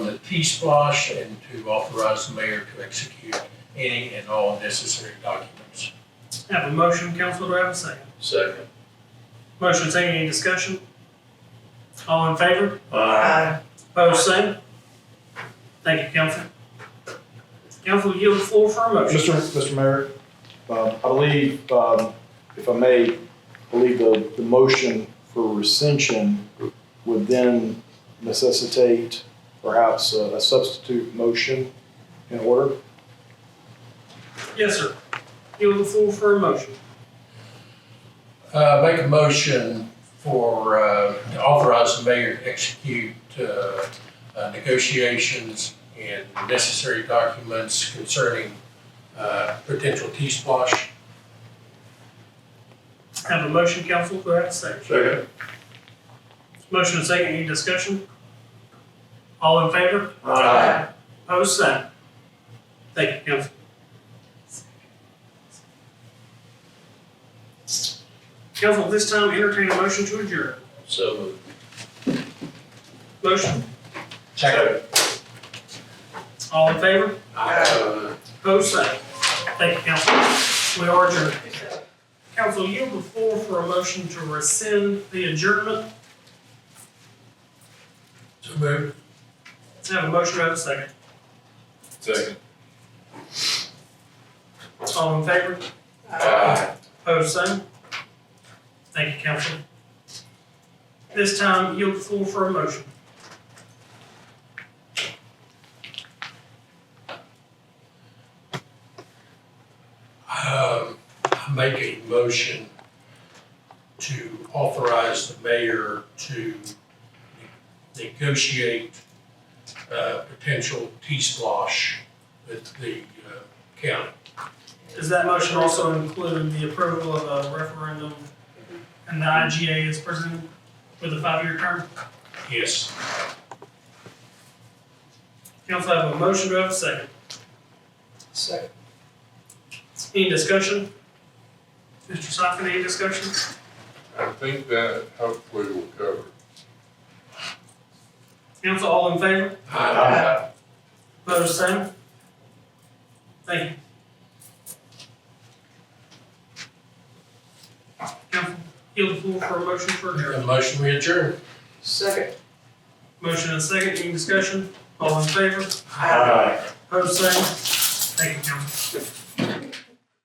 the T-Splosh and to authorize the mayor to execute any and all necessary documents. Have a motion, council, do I have a second? Second. Motion second, any discussion? All in favor? Uh, Aye. Opposed, same? Thank you, council. Council, yield the floor for a motion. Mr. Mr. Mayor, um, I believe, um, if I may, I believe the, the motion for rescension would then necessitate perhaps a a substitute motion in order. Yes, sir. Yield the floor for a motion. Uh, make a motion for, uh, to authorize the mayor to execute, uh, uh, negotiations and necessary documents concerning, uh, potential T-Splosh. Have a motion, council, do I have a second? Second. Motion second, any discussion? All in favor? Opposed, same. Thank you, council. Council, at this time entertain a motion to adjourn. So moved. Motion, Second. all in favor? Aye. Opposed, same. Thank you, council. We are adjourned. Council, you have the floor for a motion to rescind the adjournment. So moved. Let's have a motion, do I have a second. Second. All in favor? Aye. Opposed, same. Thank you, council. This time, yield the floor for a motion. Um, I make a motion to authorize the mayor to negotiate, uh, potential T-Splosh with the, uh, county. Does that motion also include the approval of a referendum and the IGA is presented with a five-year term? Yes, Council have a motion, do I have a second? Second. Any discussion? Mr. Sofferman, any discussion? I think that hopefully will cover it. Council, all in favor? Aye. Opposed, same? Thank you. Council, yield the floor for a motion for adjournment. a motion we adjourn. Motion and second, any discussion? All in favor? Aye. Opposed, same? Thank you, council.